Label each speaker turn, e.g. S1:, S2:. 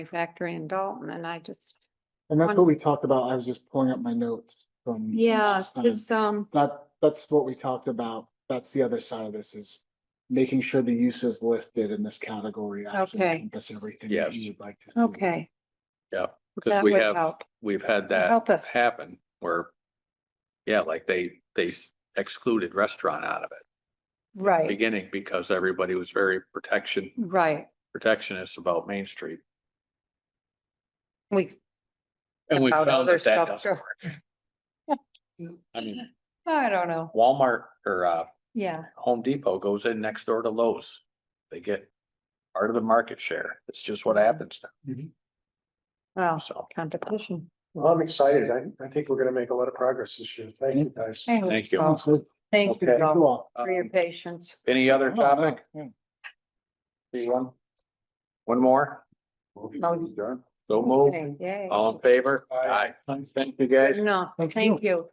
S1: factory in Dalton and I just,
S2: And that's what we talked about. I was just pulling up my notes from. from
S1: yeah,
S2: last time.
S1: it's, um,
S2: That, that's what we talked about. That's the other side of this is making sure the use is listed in this category. actually
S1: Okay.
S2: encompass everything
S3: Yeah.
S2: that you'd like to. see.
S1: okay.
S3: Yeah, 'cause
S1: That
S3: we
S1: would
S3: have-
S1: help.
S3: We've had
S1: Help
S3: that
S1: us.
S3: happen where, yeah, like they, they excluded restaurant out of it at the
S1: Right,
S3: beginning because everybody was very protection,
S1: right.
S3: protectionist about Main Street.
S1: We,
S3: And we
S1: About
S3: found
S1: other
S3: that that
S1: stuff,
S3: doesn't work. I mean,
S1: I don't know.
S3: Walmart or, uh,
S1: Yeah,
S3: Home Depot goes in next door to Lowe's. They get part of the market share. It's just what happens now,
S1: well,
S3: so.
S1: competition.
S4: Well, I'm excited. I, I think we're gonna make a lot of progress this year. Thank you, guys. Uh,
S1: I hope
S3: Thank
S1: so.
S2: Sounds good.
S1: Thank you
S3: Okay.
S2: Thank
S1: all
S2: you all.
S1: for your
S3: Um,
S1: patience.
S3: Any other
S2: Oh, no,
S3: topic?
S2: yeah.
S3: See one? One more?
S4: Done.
S3: So move.
S1: Okay, Yay.
S3: All in favor?
S4: Aye.
S3: Thank you guys.
S1: No,
S2: Thank you.
S1: thank you.